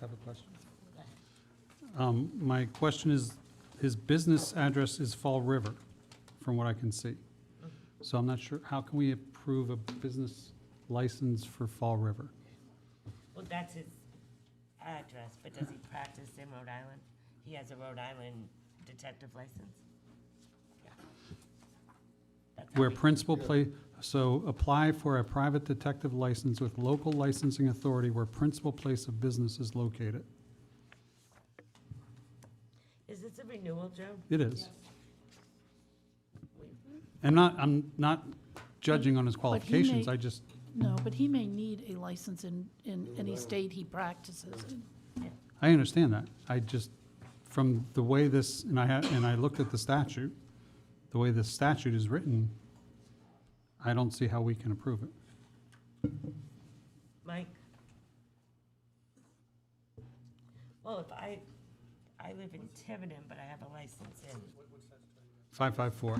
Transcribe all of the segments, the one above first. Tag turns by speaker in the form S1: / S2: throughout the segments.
S1: have a question.
S2: Um, My question is, his business address is Fall River, from what I can see. So I'm not sure, how can we approve a business license for Fall River?
S3: Well, that's his address, but does he practice in Rhode Island? He has a Rhode Island detective license? Yeah. That's how
S2: Where
S3: we-
S2: principal play, so apply for a private detective license with local licensing authority where principal place of business is located.
S3: Is this a renewal, Joe?
S2: It is.
S3: We-
S2: I'm not, I'm not judging on his qualifications,
S4: may-
S2: I just,
S4: No, but he may need a license in, in any state he practices in.
S2: I understand that. I just, from the way this, and I had, and I looked at the statute, the way the statute is written, I don't see how we can approve it.
S3: Mike? Well, if I, I live in Tiverton, but I have a license in,
S2: Five five four.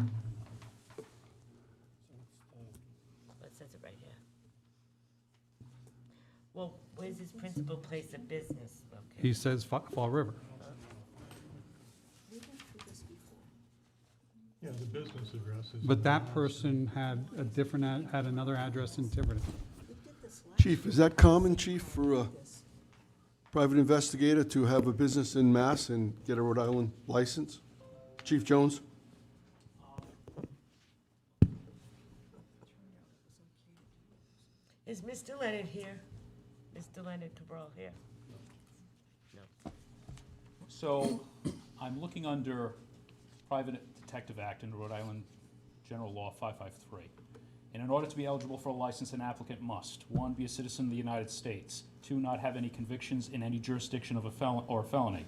S3: what says it right here? Well, where's his principal place of business located?
S2: He says Fa- Fall River.
S5: Yeah, the business address is.
S2: But that person had a different, ad- had another address in Tiverton.
S6: Chief, is that common, chief, for a private investigator to have a business in Mass and get a Rhode Island license? Chief Jones?
S3: Is Mr. Leonard here? Mr. Leonard Cabral here?
S7: So I'm looking under Private Detective Act in Rhode Island General Law 553. And in order to be eligible for a license, an applicant must, one, be a citizen of the United States, two, not have any convictions in any jurisdiction of a felon, or felony,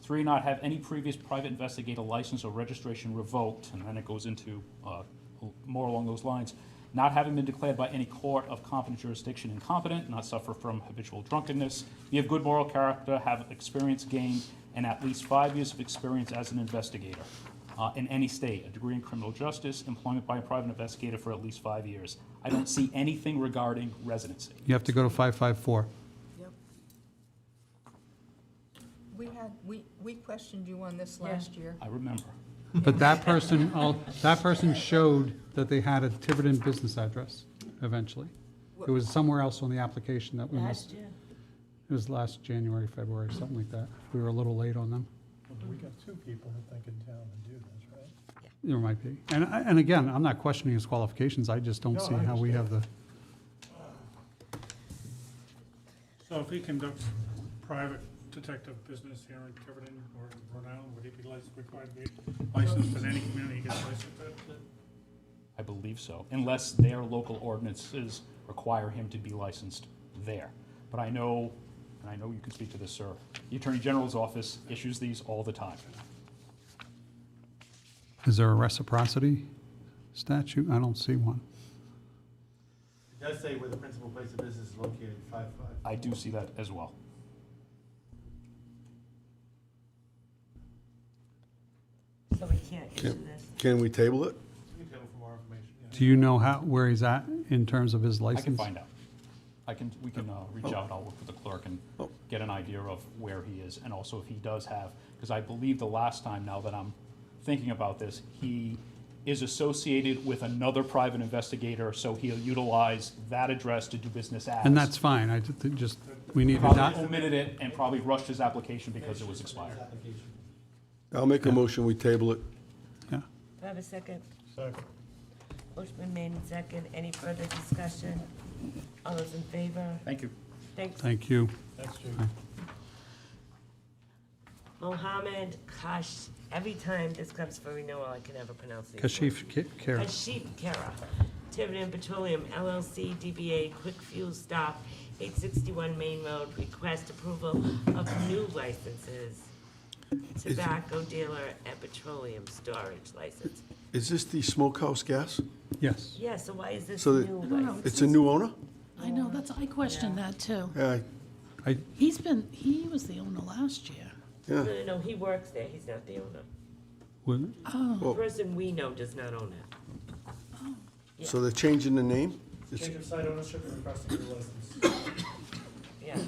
S7: three, not have any previous private investigator license or registration revoked, and then it goes into uh, more along those lines, not having been declared by any court of competent jurisdiction incompetent, not suffer from habitual drunkenness, be of good moral character, have experience gained, and at least five years of experience as an investigator uh, in any state, a degree in criminal justice, employment by a private investigator for at least five years. I don't see anything regarding residency.
S2: You have to go to five five four.
S8: Yep. We had, we, we questioned you on this last year.
S7: I remember.
S2: But that person, al- that person showed that they had a Tiverton business address eventually. It was somewhere else on the application that we missed.
S3: Last year?
S2: It was last January, February, something like that. We were a little late on them.
S5: We got two people that think in town that do this, right?
S2: There might be. And, I- and again, I'm not questioning his qualifications. I just don't
S5: No,
S2: see
S5: I
S2: how we have the,
S9: So if he conducts private detective business here in Tiverton or in Rhode Island, would he be licensed, required to be licensed in any community he gets licensed in?
S7: I believe so, unless their local ordinances require him to be licensed there. But I know, and I know you can speak to this, sir, the Attorney General's office issues these all the time.
S2: is there a reciprocity statute? I don't see one.
S10: It does say where the principal place of business is located, five five.
S7: I do see that as well.
S3: So we can't issue this?
S6: Can we table it?
S10: You can tell from our information, yeah.
S2: Do you know how, where he's at in terms of his
S7: I
S2: license?
S7: can find out. I can, we can uh, reach out, I'll work with the clerk and
S6: Oh.
S7: get an idea of where he is, and also if he does have, because I believe the last time, now that I'm thinking about this, he is associated with another private investigator, so he'll utilize that address to do business as.
S2: And that's fine. I ju- just, we need to
S7: Probably
S2: not,
S7: omitted it and probably rushed his application because it was expired.
S10: Application.
S6: I'll make a motion, we table it.
S2: yeah.
S3: Do I have a second?
S5: Second.
S3: Motion been made and second. Any further discussion? All those in favor?
S7: Thank you.
S3: Thanks.
S2: Thank you.
S5: That's true.
S3: Mohammed Kash, every time this comes for renewal, I can never pronounce it.
S2: Kashif Ki- Kara.
S3: Kashif Kara, Tiverton Petroleum LLC, DBA Quick Fuel Stop, 861 Main Road, request approval of new licenses. Tobacco dealer and petroleum storage license.
S6: Is this the smokehouse gas?
S2: Yes.
S3: Yeah, so why is this
S6: So
S3: new
S6: the-
S3: license?
S6: It's a new owner?
S4: I know, that's, I questioned that too.
S6: Yeah,
S2: I,
S4: He's been, he was the owner last year.
S6: yeah.
S3: No, no, no, he works there, he's not the owner.
S2: would-
S3: The person we know does not own it.
S6: So they're changing the name? It's-
S10: Change of site ownership and requesting a license.